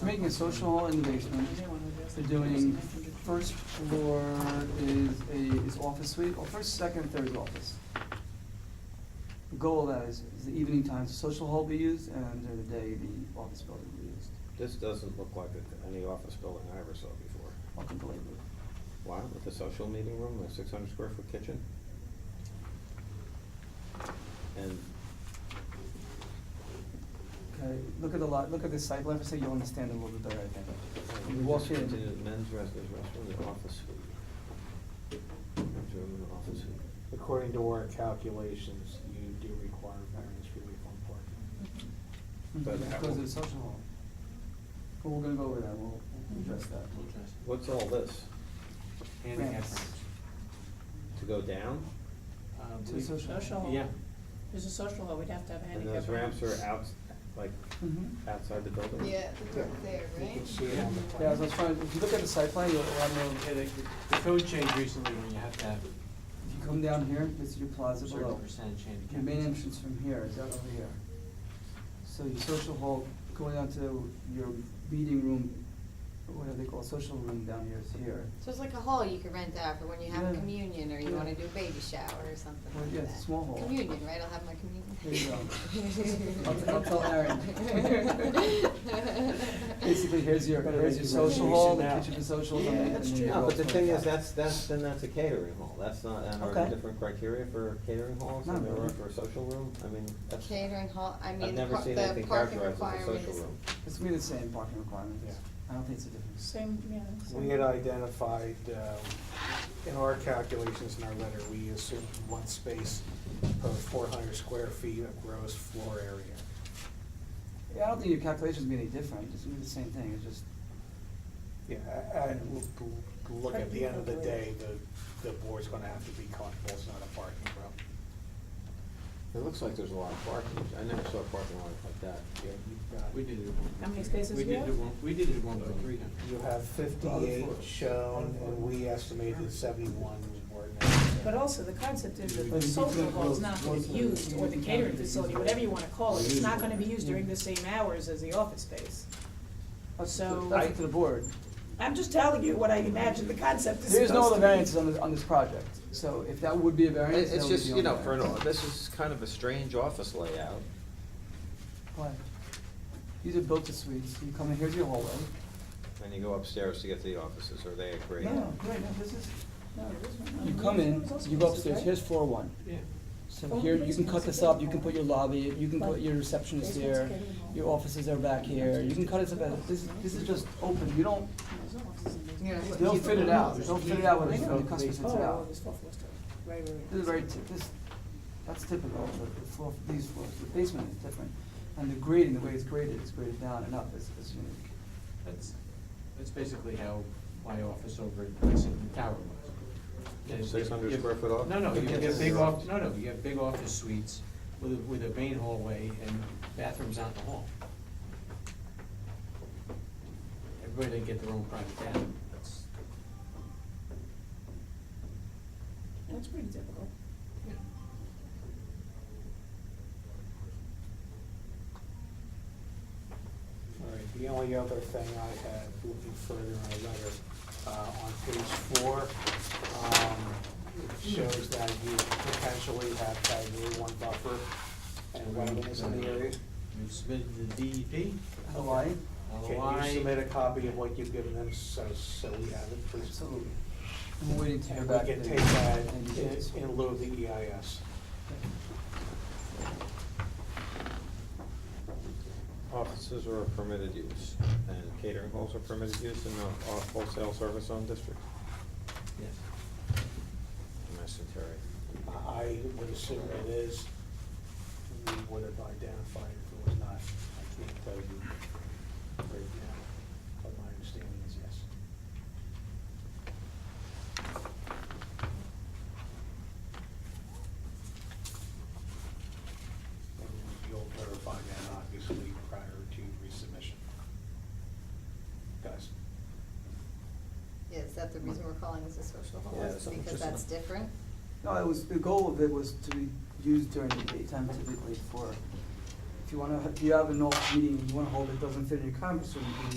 They're making a social hall in the basement. They're doing, first floor is a, is office suite, or first, second, third is office. The goal of that is, is the evening times, the social hall be used, and during the day, the office building be used. This doesn't look like a- any office building I ever saw before. Welcome to Lakewood. Wow, with a social meeting room, a six hundred square foot kitchen? And, Okay, look at the lot, look at the site plan, so you'll understand a little bit better, I think. When you walk Just continue, in, men's rest, there's restroom, the office suite. Men's room and office suite. According to our calculations, you do require variance relief on parking. But that because of will- the social hall. But we're gonna go over that, we'll we'll address that. What's all this? Handicap Ramps. ramps. To go down? Uh, To we- social hall. Social hall. Yeah, There's a social hall, we'd have to have a And handicap. those ramps are out, like, Mhm. outside the building? Yeah, the door there, You can right? see it on the Yeah, plan. as I was trying, if you look at the site plan, you'll, I know, yeah, the, the code changed recently when you have to have if you come down here, this is your plaza certain below. percentage handicap. Your main entrance from here is out over here. So your social hall, going down to your meeting room, or whatever they call it, social room down here is here. So it's like a hall you could rent out for when you have a Yeah. communion or you Yeah. wanna do a baby shower or something Well, like yeah, that. it's a small hall. Communion, right, I'll have my communion. There you go. I'll t- I'll tell Aaron. Basically, here's your, Better here's make your your social hall, the reservation now. kitchen for socials, and Yeah, then. that's and then true. your No, but the restaurant. thing is, that's, that's, then that's a catering hall, that's not, and are there Okay. different criteria for catering halls, Not and there are really. for a social room, I mean, that's. Catering hall, I mean, the never par- seen the anything parking characterized as a requirement social is. room. It's gonna be the same parking requirements. Yeah. I don't think it's a difference. Same, yeah. same. We had identified, um, in our calculations in our letter, we assumed one space per four hundred square feet of gross floor area. Yeah, I don't think your calculation's gonna be any different, it's gonna be the same thing, it's just, Yeah, and we'll, we'll look at the end of the day, the, the board's gonna have to be comfortable, it's not a parking problem. It looks like there's a lot of parking, I never saw a parking lot like that. Yeah, you've got- We did it. at one- How many spaces we do you did have? it at one- We did it at one point three You hundred. have fifty-eight shown, and we estimated seventy-one were But necessary. also, the concept is that But the you social can hall is close- not gonna close be the- used, or the catering facility, whatever you wanna call it, it's not gonna be used during Yeah. the same hours as the office space. that's So- that's up to the board. I'm just telling you what I imagine the concept is supposed to There be. is no other variances on this, on this project, so if that would be a variance, that It's would be just, the you only know, for an, variance. this is kind of a strange office layout. Why? These are built to suites, you come in, here's your hallway. And you go upstairs to get to the offices, or they agree. No, right, no, this is, No, it is one. you come in, It's also you go spaces, upstairs, right? here's floor one. Yeah. So Well, here, the you can cut basement's this a up, big you can put hall. your lobby, you can put Like, your receptionist basement's here, getting hall. your offices are back here, you can cut it up, as- this, this is just open, you don't, There's no offices in Yeah, basement. it's they'll fit it out, There's they'll fit it key. out when, Oh, when the customer sits it oh, out. there's four floors to it. Right, right, right. This is very, ty- this, that's typical, the the floor, these floors, the basement is different, and the grading, the way it's graded, it's graded down and up, is is unique. That's, that's basically how my office over at Lexington Tower was. Yeah, you- 600 you- square foot office? No, no, you Yeah. get big off, no, no, you have big office suites with, a- with a main hallway and bathrooms out in the hall. Everybody get their own private bathroom, that's, That's pretty typical. yeah. All right, the only other thing I had, looking further in the letter, uh, on page four, um, it shows that you potentially have category one buffer and wetlands in the area. We've submitted the E DEP, Hawaii? Can you submit LOI, a copy of what you've given them, so, so we have it, please? Absolutely. I'm waiting to hear And back. we can the- take that and you can- in, in lieu of the E EIS. Offices are permitted use, and catering halls are permitted use in the off- wholesale service zone district. yes. in Madison Terry. I would assume it is, we would have identified if it was not. I can't tell you right now, but my understanding is yes. And you'll verify that obviously prior to resubmission. Guys? Yeah, is that the reason we're calling this a social hall, Yeah, is so because just- that's different? No, it was, the goal of it was to be used during the daytime typically for, if you wanna, if you have an off meeting, you wanna hold it, doesn't fit in your conference room, you can